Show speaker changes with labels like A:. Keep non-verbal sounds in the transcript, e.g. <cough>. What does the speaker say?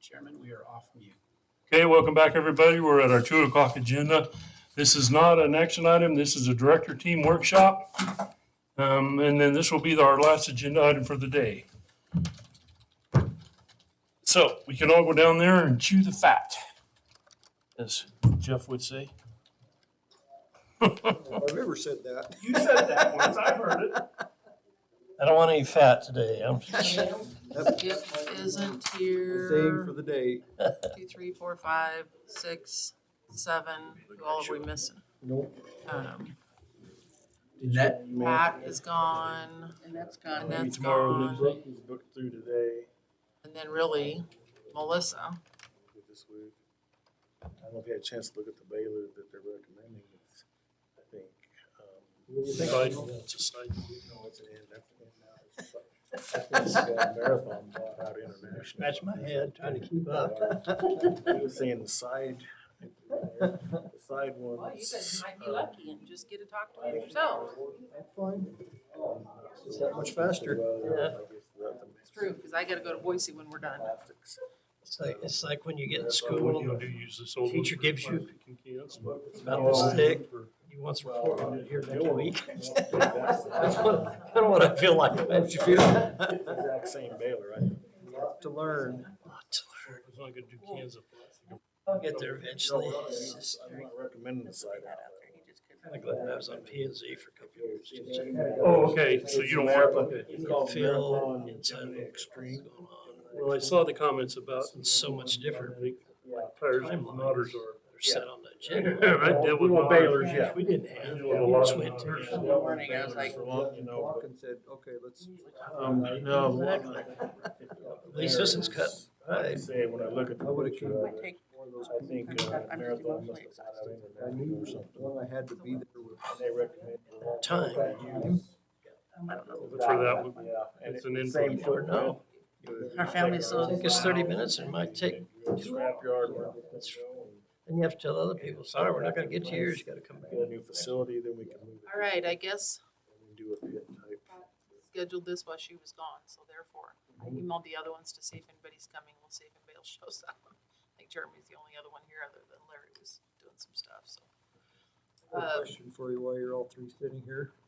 A: Chairman, we are off mute.
B: Okay, welcome back, everybody. We're at our two o'clock agenda. This is not an action item. This is a director team workshop. Um, and then this will be our last agenda item for the day. So we can all go down there and chew the fat, as Jeff would say.
C: I've ever said that.
B: You said that once. I heard it.
D: I don't want any fat today. I'm-
E: Skip isn't
C: Same for
E: here.
C: the day.
E: Two, three, four, five, six, seven. Who all are we missing?
C: Nope.
E: Um,
C: Did
F: That-
C: you- you
E: Pat
C: manage-
E: is gone,
A: And that's gone.
E: and that's
B: tomorrow
E: gone.
B: then.
C: Book is booked through today.
E: And then really Melissa.
C: This week. I don't know if you had a chance to look at the Baylor that they're recommending. It's, I think.
B: Side-
C: um,
B: it's a side-
C: No, it's an end. That's an end now. It's like- it's, uh, Marathon bought out international. Uh,
D: Scratch my head trying to keep up.
C: He was saying the side, the side one. uh,
E: and just get to talk
C: That's fine. It's that much faster.
E: It's true, because I gotta go to Boise when we're done.
D: It's like, it's like when you get in school,
B: I do use this old one
D: Teacher
B: for
D: gives you-
B: plastic and cans.
D: about this thick, you want some pork on it here next
C: <laughs>
D: week. That's what, kind of what I feel like.
F: <laughs>
C: How'd you feel? Exact same Baylor, right? <laughs> To learn.
B: It's not gonna do cans of plastic.
D: I'll get there eventually. It's just
C: I'm not recommending the side.
D: Kind of glad I was on P and Z for a couple years.
B: Oh, okay, so you don't work with it.
D: You can feel inside of the screen going on.
B: Well, I saw the comments about.
D: It's so much different.
B: I think Tires and motors are.
D: They're set on that
B: <laughs> Yeah,
D: jet.
B: I did with
C: want
B: Baylor's,
C: yeah.
D: We didn't have,
B: You
D: we
B: want a lot
D: just
B: of
D: went
B: others.
D: to.
A: morning, I was like-
C: Walken said, okay, let's.
F: Um, no.
D: At least this one's cut.
F: I say, when I look at. the
C: I would've
F: picture,
C: came-
F: uh, I think uh,
A: I'm just
F: Marathon must
A: emotionally
F: have had out
C: I
F: international
C: knew
F: or something.
C: when I had to be there with.
F: And they recommend.
D: Time.
B: But for that one,
F: Yeah. and
B: it's an
F: it's the Same
B: input.
D: Or no,
F: footprint.
A: Our family's
F: uh,
A: so-
D: I think it's thirty minutes and it might take,
F: Scrap yard. where
D: That's-
F: Get
D: then you have to tell other people, sorry, we're not gonna get to yours, you gotta come back.
F: a new facility, then we can move it.
E: All right, I guess
F: and Do a pit type.
E: scheduled this while she was gone, so therefore I emailed the other ones to see if anybody's coming. We'll see if anybody else shows up. <laughs> I think Jeremy's the only other one here other than Larry was doing some stuff, so.
C: Quick
E: Uh,
C: Question for you while you're all three sitting here.